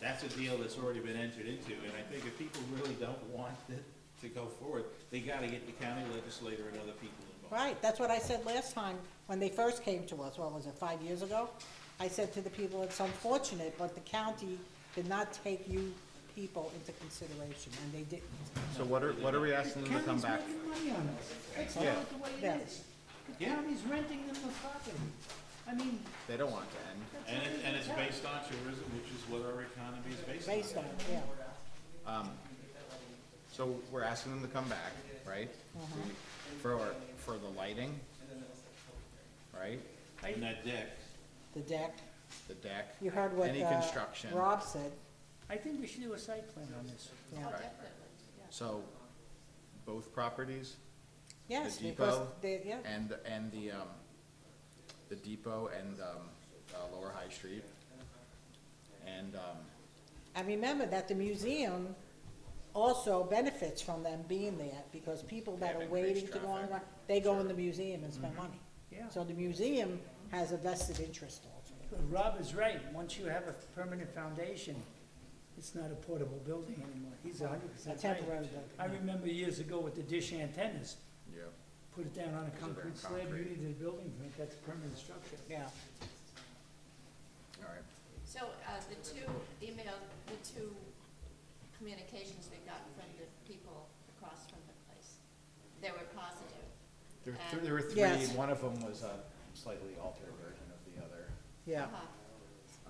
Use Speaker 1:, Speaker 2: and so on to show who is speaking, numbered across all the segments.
Speaker 1: that's a deal that's already been entered into, and I think if people really don't want it to go forward, they gotta get the county legislator and other people involved.
Speaker 2: Right, that's what I said last time, when they first came to us, what was it, five years ago? I said to the people, it's unfortunate, but the county did not take you people into consideration, and they didn't.
Speaker 3: So what are, what are we asking them to come
Speaker 4: County's
Speaker 3: back?
Speaker 4: making money on us. That's
Speaker 3: Yeah.
Speaker 4: not the way
Speaker 2: Yeah.
Speaker 4: it is. The
Speaker 1: Yeah.
Speaker 4: county's renting them the property. I mean,
Speaker 3: They don't want to end.
Speaker 4: that's.
Speaker 1: And
Speaker 4: not
Speaker 1: it,
Speaker 4: even
Speaker 1: and it's
Speaker 4: fair.
Speaker 1: based on tourism, which is what our economy is based
Speaker 2: Based
Speaker 1: on.
Speaker 2: on, yeah,
Speaker 3: So we're asking them to come back, right?
Speaker 2: Mm-hmm.
Speaker 3: For, for the lighting, right?
Speaker 1: And that deck,
Speaker 2: the deck,
Speaker 3: The deck.
Speaker 2: you heard what,
Speaker 3: Any
Speaker 2: uh,
Speaker 3: construction.
Speaker 2: Rob said,
Speaker 4: I think we should do a site plan on this.
Speaker 2: yeah.
Speaker 3: Right. So both properties,
Speaker 2: Yes,
Speaker 3: The
Speaker 2: because
Speaker 3: depot
Speaker 2: they, yeah,
Speaker 3: and, and the, um, the depot and, um, uh, Lower High Street. And, um,
Speaker 2: and remember that the museum also benefits from them being there, because people that
Speaker 3: They
Speaker 2: are
Speaker 3: have
Speaker 2: waiting
Speaker 3: increased
Speaker 2: to go on,
Speaker 3: traffic.
Speaker 2: they go in the museum and spend money.
Speaker 4: Yeah.
Speaker 2: So the museum has a vested interest also.
Speaker 4: Rob is right. Once you have a permanent foundation, it's not a portable building anymore. He's a hundred
Speaker 2: A
Speaker 4: percent right.
Speaker 2: temporary building.
Speaker 4: I remember years ago with the dish antennas,
Speaker 3: yeah,
Speaker 4: put it down on a concrete slab, you
Speaker 3: concrete.
Speaker 4: needed a building permit, that's a permanent structure.
Speaker 2: Yeah,
Speaker 3: all right.
Speaker 5: So, uh, the two email, the two communications we got from the people across from the place, they were positive.
Speaker 3: There,
Speaker 5: Um,
Speaker 3: there- there were
Speaker 2: Uh, Yes.
Speaker 3: three, one of them was a slightly altered version of the other.
Speaker 2: yeah.
Speaker 5: Uh-huh.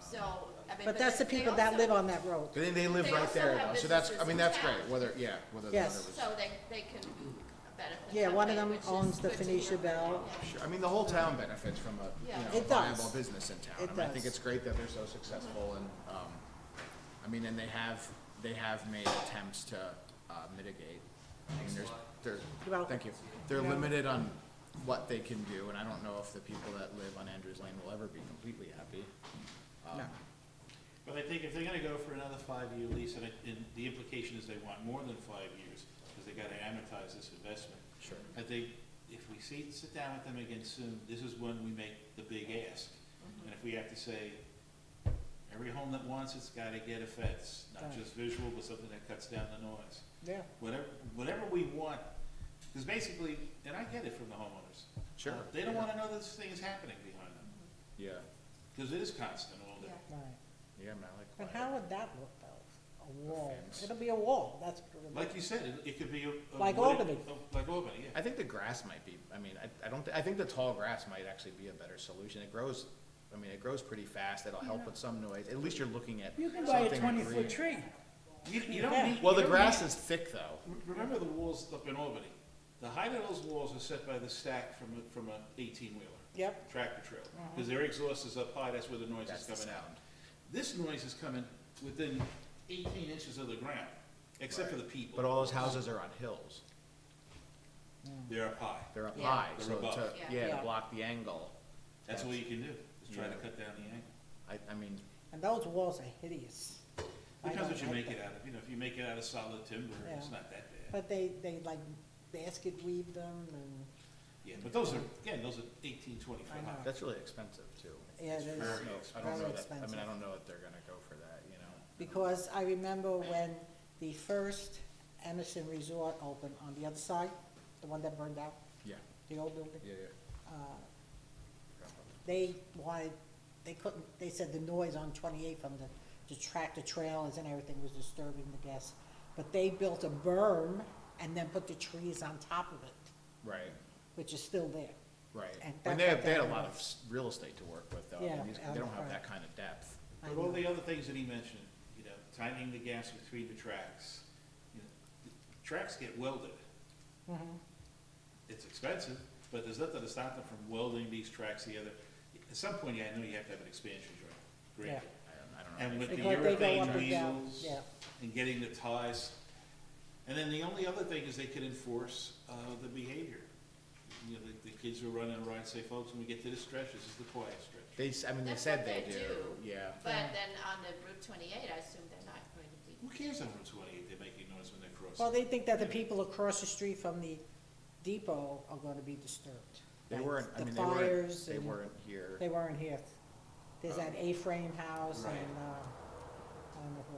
Speaker 5: So, I mean.
Speaker 2: But that's the
Speaker 5: they
Speaker 2: people that
Speaker 5: also-
Speaker 2: live on that road.
Speaker 3: They, they live
Speaker 5: They
Speaker 3: right
Speaker 5: also
Speaker 3: there
Speaker 5: have
Speaker 3: though, so that's, I
Speaker 5: businesses
Speaker 3: mean,
Speaker 5: in
Speaker 3: that's
Speaker 5: town.
Speaker 3: great, whether, yeah, whether the other
Speaker 2: Yes.
Speaker 3: was.
Speaker 5: So they, they can benefit.
Speaker 2: Yeah,
Speaker 5: that
Speaker 2: one of
Speaker 5: way,
Speaker 2: them
Speaker 5: which is
Speaker 2: owns the
Speaker 5: good to hear.
Speaker 2: Phoenicia Bell.
Speaker 5: Yeah.
Speaker 3: Sure, I mean, the whole town benefits from a,
Speaker 5: Yeah.
Speaker 3: you know, a
Speaker 2: It does.
Speaker 3: viable business in town.
Speaker 2: It
Speaker 3: I mean, I think
Speaker 2: does.
Speaker 3: it's great that they're so successful and, um, I mean, and they have, they have made attempts to, uh, mitigate. I mean, there's,
Speaker 2: You're
Speaker 3: they're,
Speaker 2: welcome.
Speaker 3: thank you. They're
Speaker 2: You're welcome.
Speaker 3: limited on what they can do, and I don't know if the people that live on Andrews Lane will ever be completely happy.
Speaker 1: Oh.
Speaker 2: No.
Speaker 1: But I think if they're gonna go for another five-year lease, and, it- and the implication is they want more than five years, because they gotta amortize this investment.
Speaker 3: Sure.
Speaker 1: I think if we sit, sit down with them again soon, this is when we make the big ask.
Speaker 2: Mm-hmm.
Speaker 1: And if we have to say, every home that wants it's gotta get a fence, not
Speaker 2: Right.
Speaker 1: just visual, but something that cuts down the noise.
Speaker 2: Yeah.
Speaker 1: Whatever, whatever we want, because basically, and I get it from the homeowners.
Speaker 3: Sure.
Speaker 1: Uh, They don't wanna know this thing is happening behind them,
Speaker 3: Yeah,
Speaker 1: because it is constant all day.
Speaker 5: Yeah.
Speaker 2: Right.
Speaker 3: yeah, man, I like.
Speaker 2: But
Speaker 3: quiet.
Speaker 2: how would that look though? A wall.
Speaker 3: fence.
Speaker 2: It'll be a wall, that's. what it'll be.
Speaker 1: Like you said, it, it could be a. a
Speaker 2: Like
Speaker 1: wooded-
Speaker 2: Albany.
Speaker 1: a- Like Albany, yeah.
Speaker 3: I think the grass might be, I mean, I, I don't, thi- I think the tall grass might actually be a better solution. It grows, I mean, it grows pretty fast, it'll help with some noise. At least you're looking at
Speaker 4: You
Speaker 3: something
Speaker 4: can buy a
Speaker 3: green.
Speaker 4: twenty-foot tree.
Speaker 1: You, you don't
Speaker 2: Yeah.
Speaker 1: need.
Speaker 3: Well,
Speaker 1: you
Speaker 3: the
Speaker 1: don't need-
Speaker 3: grass is thick though.
Speaker 1: Re- Remember the walls up in Albany? The height of those walls are set by the stack from, a- from an eighteen-wheeler,
Speaker 2: Yep, Uh-huh.
Speaker 1: tractor trailer. Because their exhaust is up high, that's where the noise
Speaker 3: That's
Speaker 1: is
Speaker 3: the
Speaker 1: coming out.
Speaker 3: sound.
Speaker 1: This noise is coming within eighteen inches of the ground, except for the
Speaker 3: Right.
Speaker 1: people.
Speaker 3: But all those houses are on hills.
Speaker 1: They're up high.
Speaker 3: They're up
Speaker 5: Yeah.
Speaker 3: high,
Speaker 1: They're
Speaker 3: so
Speaker 1: above.
Speaker 3: to,
Speaker 5: Yeah.
Speaker 3: yeah,
Speaker 2: Yeah.
Speaker 3: to block the angle.
Speaker 1: That's all you can do, is try to
Speaker 3: Yeah.
Speaker 1: cut down the angle.
Speaker 3: I, I mean,
Speaker 2: and those walls are hideous. I
Speaker 1: Depends
Speaker 2: don't
Speaker 1: what you
Speaker 2: like
Speaker 1: make
Speaker 2: that.
Speaker 1: it out of. You know, if you make it out of solid timber, it's
Speaker 2: Yeah.
Speaker 1: not that bad.
Speaker 2: But they, they like basket weave them and,
Speaker 1: Yeah, but those are, again, those are eighteen, twenty foot
Speaker 2: I
Speaker 1: high.
Speaker 2: know.
Speaker 3: that's really expensive too.
Speaker 2: yeah, it is.
Speaker 1: Very
Speaker 3: I don't
Speaker 2: Very
Speaker 3: know that, I mean, I
Speaker 2: expensive.
Speaker 3: don't know if they're gonna go for that, you know?
Speaker 2: Because I remember when the first Emerson Resort opened on the other side, the one that burned out,
Speaker 3: Yeah,
Speaker 2: the old building.
Speaker 3: yeah,
Speaker 2: they wanted, they couldn't, they said the noise on twenty-eight from the, the tractor trailers and everything was disturbing the guests. But they built a berm and then put the trees on top of it,
Speaker 3: right,
Speaker 2: which is still there.
Speaker 3: right.
Speaker 2: And
Speaker 3: And
Speaker 2: that-
Speaker 3: they have,
Speaker 2: that-
Speaker 3: they had a
Speaker 2: that
Speaker 3: lot of
Speaker 2: was-
Speaker 3: s- real estate to work with though. I
Speaker 2: Yeah,
Speaker 3: mean, these-
Speaker 2: out
Speaker 3: They
Speaker 2: of
Speaker 3: don't have
Speaker 2: front.
Speaker 3: that kind of depth.
Speaker 2: I
Speaker 1: But all
Speaker 2: know.
Speaker 1: the other things that he mentioned, you know, tightening the gaps between the tracks, you know, the tracks get welded.
Speaker 2: Mm-hmm.
Speaker 1: It's expensive, but there's nothing to stop them from welding these tracks together. At some point, I know you have to have an expansion joint,
Speaker 2: Yeah.
Speaker 1: great.
Speaker 3: I don't, I don't know.
Speaker 1: And with the
Speaker 2: Because they go up
Speaker 1: urethane
Speaker 2: and down,
Speaker 1: wheels
Speaker 2: yeah.
Speaker 1: and getting the ties. And then the only other thing is they could enforce, uh, the behavior. You know, the, the kids who are running around say, folks, when we get to this stretch, this is the quiet stretch.
Speaker 3: They, s- I mean, they
Speaker 5: That's
Speaker 3: said
Speaker 5: what
Speaker 3: they
Speaker 5: they
Speaker 3: do,
Speaker 5: do.
Speaker 3: yeah.
Speaker 5: But then on the Route twenty-eight, I assume they're not going to be.
Speaker 1: Who cares on Route twenty-eight, they're making noise when they cross.
Speaker 2: Well, they think that the people across the street from the depot are gonna be disturbed.
Speaker 3: They
Speaker 2: like
Speaker 3: weren't, I
Speaker 2: the
Speaker 3: mean, they weren't,
Speaker 2: fires
Speaker 3: they
Speaker 2: and-
Speaker 3: weren't Oh. here.
Speaker 2: They weren't here. There's that A-frame house
Speaker 1: Right.
Speaker 2: and, uh, I don't know if